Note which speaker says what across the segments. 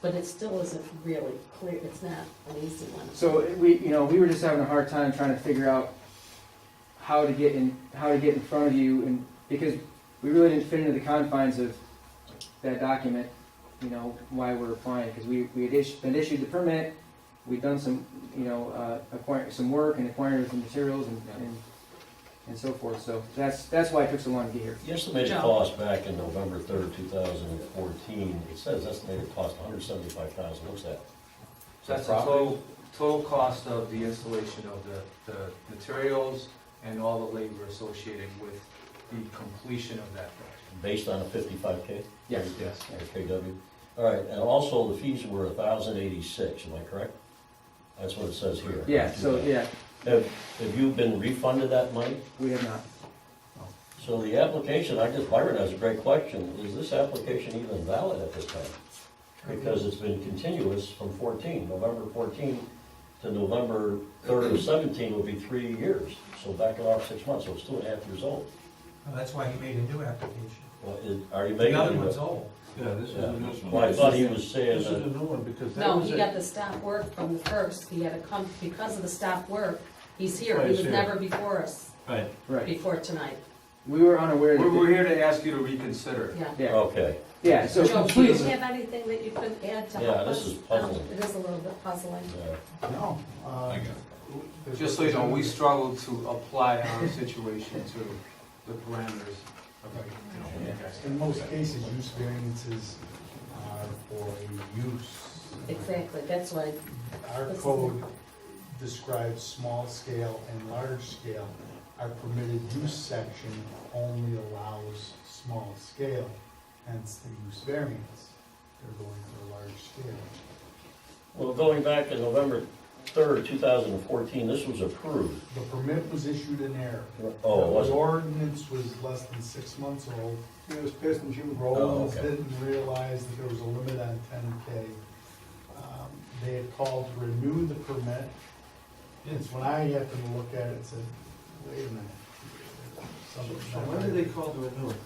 Speaker 1: but it still isn't really clear, it's not an easy one.
Speaker 2: So we, you know, we were just having a hard time trying to figure out how to get in, how to get in front of you, and because we really didn't fit into the confines of that document, you know, why we're applying, because we, we had issued, been issued the permit, we'd done some, you know, uh, acquire, some work and acquired some materials and, and, and so forth, so that's, that's why it took so long to get here.
Speaker 3: The estimated
Speaker 1: Joe.
Speaker 3: cost back in November third, two thousand and fourteen, it says estimated cost hundred seventy-five thousand, what's that?
Speaker 4: So that's the total, total cost of the installation of the, the materials and all the labor associated with the completion of that project.
Speaker 3: Based on a fifty-five K?
Speaker 2: Yes.
Speaker 4: Yes.
Speaker 3: KW. All right, and also the fees were a thousand eighty-six, am I correct? That's what it says here.
Speaker 2: Yeah, so, yeah,
Speaker 3: Have, have you been refunded that money?
Speaker 2: we have not.
Speaker 3: So the application, I just, Byron has a great question, is this application even valid at this time? Because it's been continuous from fourteen, November fourteen to November third of seventeen would be three years. So back it off six months, so it's two and a half years old.
Speaker 5: Well, that's why he made a new application.
Speaker 3: Well, is- Are you making?
Speaker 5: The other one's old.
Speaker 6: Yeah, this is
Speaker 3: Yeah.
Speaker 6: a new one.
Speaker 3: Well, I thought he was
Speaker 6: This
Speaker 3: saying
Speaker 6: is a
Speaker 3: that,
Speaker 6: new one because that
Speaker 1: No,
Speaker 6: was
Speaker 1: he
Speaker 6: it.
Speaker 1: got the stop work from the first, he had to come, because of the stop work, he's here,
Speaker 6: Right,
Speaker 1: he
Speaker 6: he's
Speaker 1: was
Speaker 6: here.
Speaker 1: never before us,
Speaker 6: Right.
Speaker 2: Right,
Speaker 1: before tonight,
Speaker 2: we were unaware
Speaker 4: We're, we're
Speaker 2: that,
Speaker 4: here to ask you to reconsider.
Speaker 1: yeah.
Speaker 2: yeah,
Speaker 3: okay,
Speaker 2: yeah, so.
Speaker 1: Joe, do you have anything that you could add to help
Speaker 3: Yeah, this
Speaker 1: us?
Speaker 3: is puzzling.
Speaker 1: Um, It is a little bit puzzling.
Speaker 3: yeah.
Speaker 5: No. uh,
Speaker 4: Just so you know, we struggled to apply our situation to the parameters of our, you know,
Speaker 7: In most cases, use variances are for a use.
Speaker 1: Exactly, that's why,
Speaker 7: Our code describes small scale and large scale. Our permitted use section only allows small scale, hence the use variance. They're going for large scale.
Speaker 3: Well, going back to November third, two thousand and fourteen, this was approved.
Speaker 7: The permit was issued in error.
Speaker 3: Oh, it
Speaker 7: The
Speaker 3: wasn't,
Speaker 7: ordinance was less than six months old. It was passed in June.
Speaker 3: Oh,
Speaker 7: Rollins
Speaker 3: okay.
Speaker 7: didn't realize that there was a limit on ten K. Um, They had called to renew the permit. And so when I happened to look at it, said, wait a minute. something's
Speaker 6: So
Speaker 7: not
Speaker 6: when did they
Speaker 7: right."
Speaker 6: call to renew it?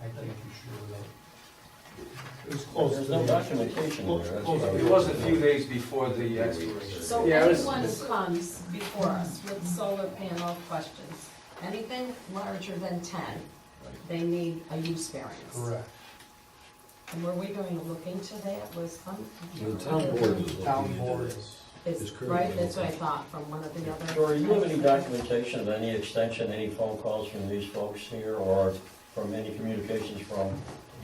Speaker 7: I can't be sure though. It was close.
Speaker 3: there's
Speaker 7: to
Speaker 3: no
Speaker 7: the-
Speaker 3: documentation there. that's what I
Speaker 4: It was a few days before the expiration.
Speaker 1: so
Speaker 2: Yeah, it was-
Speaker 1: anyone who comes before us with solar panel questions, anything larger than ten, they need a use variance.
Speaker 7: Correct.
Speaker 1: And were we going to look into that, was some?
Speaker 6: The town board is looking
Speaker 7: Town
Speaker 6: into
Speaker 7: board
Speaker 6: this.
Speaker 7: is.
Speaker 1: It's,
Speaker 6: is currently
Speaker 1: right, that's what I
Speaker 6: open.
Speaker 1: thought, from one of the other.
Speaker 3: Dory, you have any documentation of any extension, any phone calls from these folks here, or from any communications from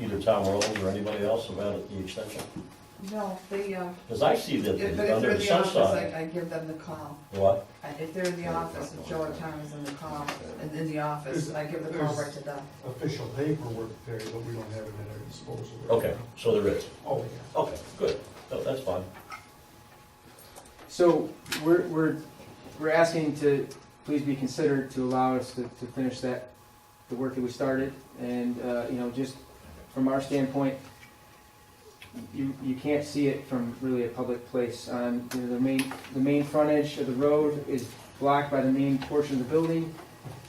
Speaker 3: either Tom Rowland or anybody else about the extension?
Speaker 8: No, they, uh,
Speaker 3: Because I see that
Speaker 8: if if they're
Speaker 3: under
Speaker 8: in
Speaker 3: the
Speaker 8: the office,
Speaker 3: sunshine.
Speaker 8: I, I give them the call.
Speaker 3: What?
Speaker 8: And If they're in the office, if Joe or Tom is in the call, and in the office, I give the call right to them.
Speaker 7: Official paperwork there, but we don't have it at our disposal. right
Speaker 3: Okay,
Speaker 7: now.
Speaker 3: so there is.
Speaker 7: Oh, yeah.
Speaker 3: Okay, good. No, that's fine.
Speaker 2: So we're, we're, we're asking to please be considered to allow us to, to finish that, the work that we started. And, uh, you know, just from our standpoint, you, you can't see it from really a public place. Um, you know, the main, the main frontage of the road is blocked by the main portion of the building.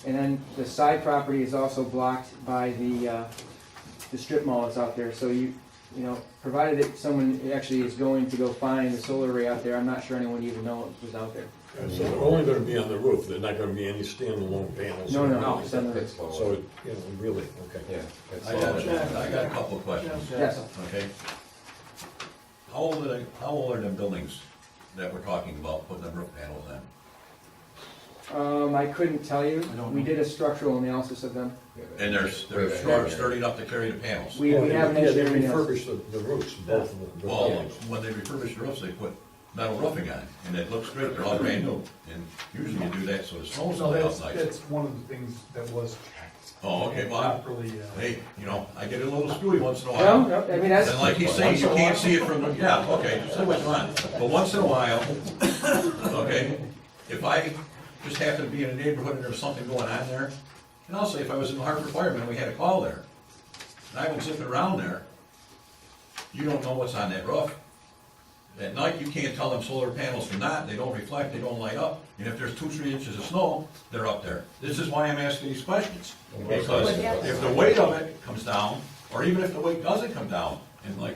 Speaker 2: And then the side property is also blocked by the, uh, the strip mall that's out there. So you, you know, provided that someone actually is going to go find the solar array out there, I'm not sure anyone even know it was out there.
Speaker 9: So they're only gonna be on the roof, they're not gonna be any standalone panels?
Speaker 2: No, no,
Speaker 4: No,
Speaker 2: no. it's on the-
Speaker 9: So, it- you know, really, okay.
Speaker 6: I got, I got a couple of questions,
Speaker 2: Yes,
Speaker 6: okay?
Speaker 10: How old are, they- how old are the buildings that we're talking about, putting the roof panels in?
Speaker 2: um, I couldn't tell you.
Speaker 6: I don't
Speaker 2: We
Speaker 6: know.
Speaker 2: did a structural analysis of them.
Speaker 10: And they're, they're stur- sturdy enough to carry the panels?
Speaker 2: We, we have an
Speaker 9: Yeah, they
Speaker 2: engineering analysis.
Speaker 9: refurbished the, the roofs, both of them.
Speaker 10: Well, when they refurbish the roofs, they put metal roofing on, and it looks great, they're all brand new, and usually you do that so the
Speaker 6: Oh,
Speaker 10: snow's
Speaker 7: So
Speaker 10: not
Speaker 7: that's,
Speaker 10: out nice.
Speaker 7: that's one of the things that was checked.
Speaker 10: Oh, okay, well, I-
Speaker 7: Properly, uh,
Speaker 10: Hey, you know, I get a little screwy once in a
Speaker 2: No,
Speaker 10: while.
Speaker 2: no, I mean, that's,
Speaker 10: And like he's saying, you can't see it from, the yeah, okay, so much on, but once in a while, okay, if I just happen to be in a neighborhood and there's something going on there, and also if I was in the Hartford Fireman and we had a call there, and I went zipping around there, you don't know what's on that roof. At night, you can't tell them solar panels from that, they don't reflect, they don't light up, and if there's two, three inches of snow, they're up there. This is why I'm asking these questions, because if the weight of it comes down, or even if the weight doesn't come down, and like